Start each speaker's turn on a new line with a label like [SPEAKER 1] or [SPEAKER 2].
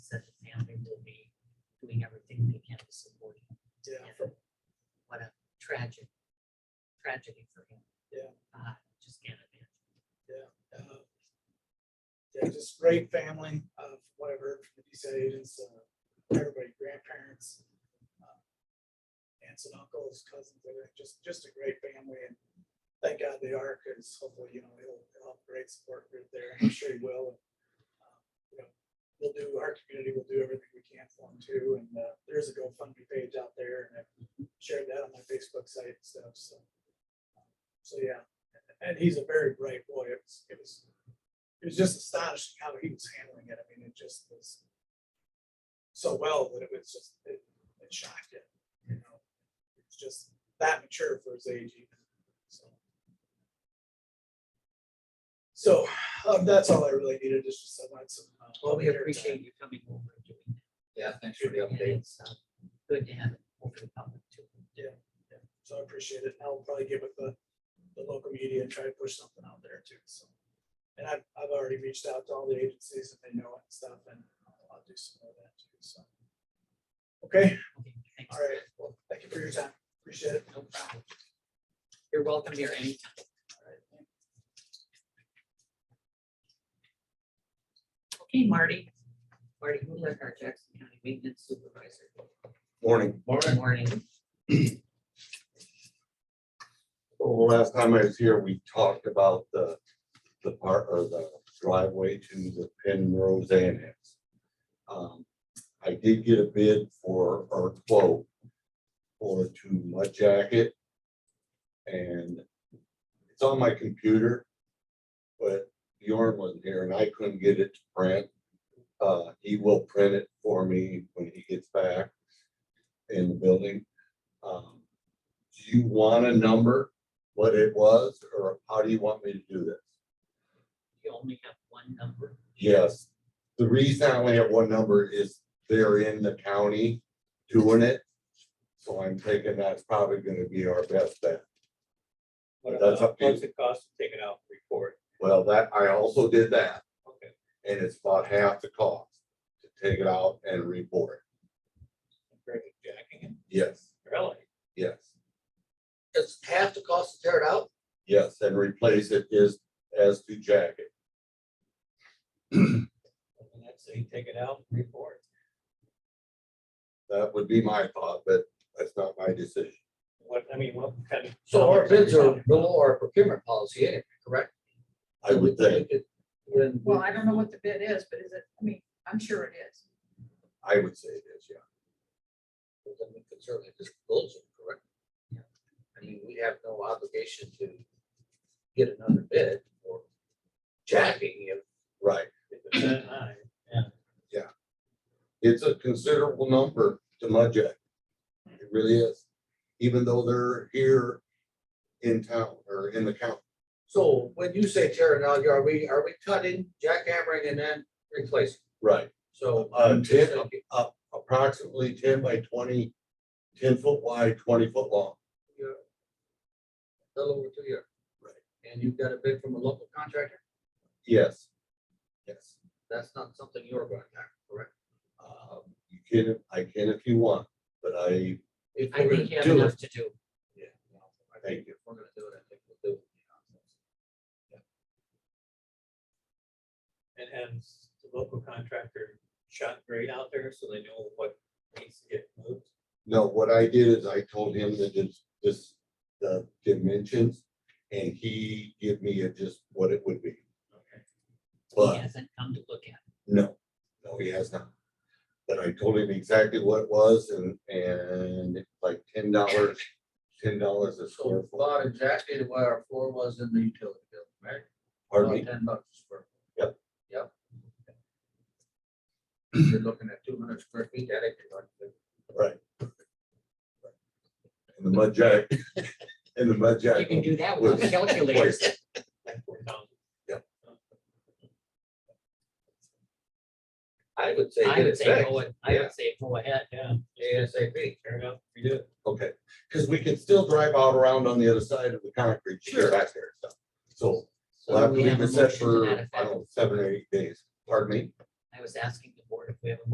[SPEAKER 1] Uh,
[SPEAKER 2] uh, great family of whatever, these agents, uh, everybody, grandparents, uh, aunts and uncles, cousins, everything, just, just a great family and thank God they are, because hopefully, you know, he'll, he'll have a great support group there. I'm sure he will. Uh, you know, We'll do, our community will do everything we can for him too. And uh, there's a GoFundMe page out there and I've shared that on my Facebook site and stuff, so. So, yeah, and he's a very bright boy. It was, it was, it was just astonishing how he was handling it. I mean, it just was so well that it was just, it, it shocked you, you know? It's just that mature for his age even, so. So, um, that's all I really needed, is just I wanted some. uh,
[SPEAKER 1] Well, we
[SPEAKER 2] better
[SPEAKER 1] appreciate
[SPEAKER 2] time.
[SPEAKER 1] you coming over and doing
[SPEAKER 3] Yeah, thanks for
[SPEAKER 1] that.
[SPEAKER 3] the
[SPEAKER 1] And
[SPEAKER 3] update.
[SPEAKER 1] it's, uh, Good to have it over the public too.
[SPEAKER 2] So I appreciate it. and I'll probably get with the, the local media and try to push something out there too, so. And I've, I've already reached out to all the agencies and they know it and stuff and I'll I'll do some more of that too, so. Okay,
[SPEAKER 1] Okay, thanks.
[SPEAKER 2] all right. Well, thank you for your time. Appreciate it.
[SPEAKER 1] No problem. You're welcome here anytime. Okay, Marty. Marty Mulek, our Jackson County Maintenance Supervisor.
[SPEAKER 4] Morning.
[SPEAKER 1] Good morning.
[SPEAKER 4] Well, the last time I was here, we talked about the, the part or the driveway to the Penrose Annex. Um, I did get a bid for, or quote for to mud jacket. And it's on my computer, but Bjorn wasn't here and I couldn't get it to print. Uh, he will print it for me when he gets back in the building. Um, Do you want a number? what it was, or how do you want me to do this?
[SPEAKER 1] You only have one number.
[SPEAKER 4] Yes, the reason I only have one number is they're in the county doing it. So I'm thinking that's probably gonna be our best bet. But that's up to you.
[SPEAKER 3] What's it cost to take it out and record?
[SPEAKER 4] Well, that, I also did that,
[SPEAKER 3] Okay,
[SPEAKER 4] and it's about half the cost to take it out and report.
[SPEAKER 3] compared to jacking it,
[SPEAKER 4] Yes,
[SPEAKER 3] really?
[SPEAKER 4] yes,
[SPEAKER 3] It's half the cost to tear it out?
[SPEAKER 4] yes, and replace it is as to jacket.
[SPEAKER 3] And that's, so you take it out and report.
[SPEAKER 4] That would be my thought, but that's not my decision.
[SPEAKER 3] What, I mean, what kind of?
[SPEAKER 5] So our bids are below our procurement policy, anyway, correct?
[SPEAKER 4] I would think,
[SPEAKER 5] When,
[SPEAKER 6] Well, I don't know what the bid is, but is it, I mean, I'm sure it is.
[SPEAKER 4] I would say it is, yeah.
[SPEAKER 5] then we could certainly just close it, correct? I mean, we have no obligation to get another bid or jacking if
[SPEAKER 4] Right,
[SPEAKER 3] That high.
[SPEAKER 4] it's a considerable number to Mudjack. It really is, even though they're here in town or in the county.
[SPEAKER 5] So when you say tearing out, are we, are we cutting, jackhammering and then replacing?
[SPEAKER 4] Right.
[SPEAKER 5] So.
[SPEAKER 4] Uh, ten, uh, approximately ten by 20, 10 foot wide, twenty foot long.
[SPEAKER 5] You're a Little over two years.
[SPEAKER 4] Right.
[SPEAKER 5] And you've got a bid from a local contractor?
[SPEAKER 4] Yes. Yes.
[SPEAKER 5] That's not something you're going after, correct?
[SPEAKER 4] Um, You can, I can if you want, but I,
[SPEAKER 5] If
[SPEAKER 1] I
[SPEAKER 5] we're
[SPEAKER 1] think
[SPEAKER 5] gonna
[SPEAKER 1] you have
[SPEAKER 5] do it,
[SPEAKER 1] enough to do.
[SPEAKER 5] Yeah. I
[SPEAKER 4] Thank
[SPEAKER 5] think if we're gonna do it, I think we'll do it.
[SPEAKER 3] And have the local contractor shot grade out there so they know what needs to get moved.
[SPEAKER 4] no, what I did is I told him that this, this, the dimensions, and he gave me a just what it would be.
[SPEAKER 3] Okay.
[SPEAKER 4] But
[SPEAKER 1] He hasn't come to look at. it.
[SPEAKER 4] No, no, he has not. But I told him exactly what it was and, and it's like ten dollars, ten dollars a square
[SPEAKER 5] So
[SPEAKER 4] foot.
[SPEAKER 5] about exactly the way our floor was in the utility bill, right?
[SPEAKER 4] Pardon me?
[SPEAKER 5] About Ten bucks a square.
[SPEAKER 4] Yep.
[SPEAKER 5] Yep. You're looking at two hundred square feet, that ain't gonna do
[SPEAKER 4] Right. And the mud jack, and the mud
[SPEAKER 1] You
[SPEAKER 4] jack.
[SPEAKER 1] can do that with a calculator.
[SPEAKER 3] Like four thousand.
[SPEAKER 5] it. I would say.
[SPEAKER 1] I
[SPEAKER 5] get
[SPEAKER 1] would
[SPEAKER 5] it
[SPEAKER 1] say,
[SPEAKER 5] fixed
[SPEAKER 1] go ahead. I
[SPEAKER 4] Yeah.
[SPEAKER 1] would say go ahead.
[SPEAKER 3] Yeah,
[SPEAKER 5] ASAP.
[SPEAKER 3] tear it up, redo it.
[SPEAKER 4] Okay, because we can still drive out around on the other side of the concrete. to get
[SPEAKER 5] Sure.
[SPEAKER 4] Back there, so, so
[SPEAKER 1] So
[SPEAKER 4] we'll have to
[SPEAKER 1] we have
[SPEAKER 4] leave
[SPEAKER 1] a
[SPEAKER 4] it set
[SPEAKER 1] motion to
[SPEAKER 4] for,
[SPEAKER 1] that
[SPEAKER 4] I don't
[SPEAKER 1] effect.
[SPEAKER 4] know, seven or eight days. Pardon me?
[SPEAKER 1] I was asking the board if we have a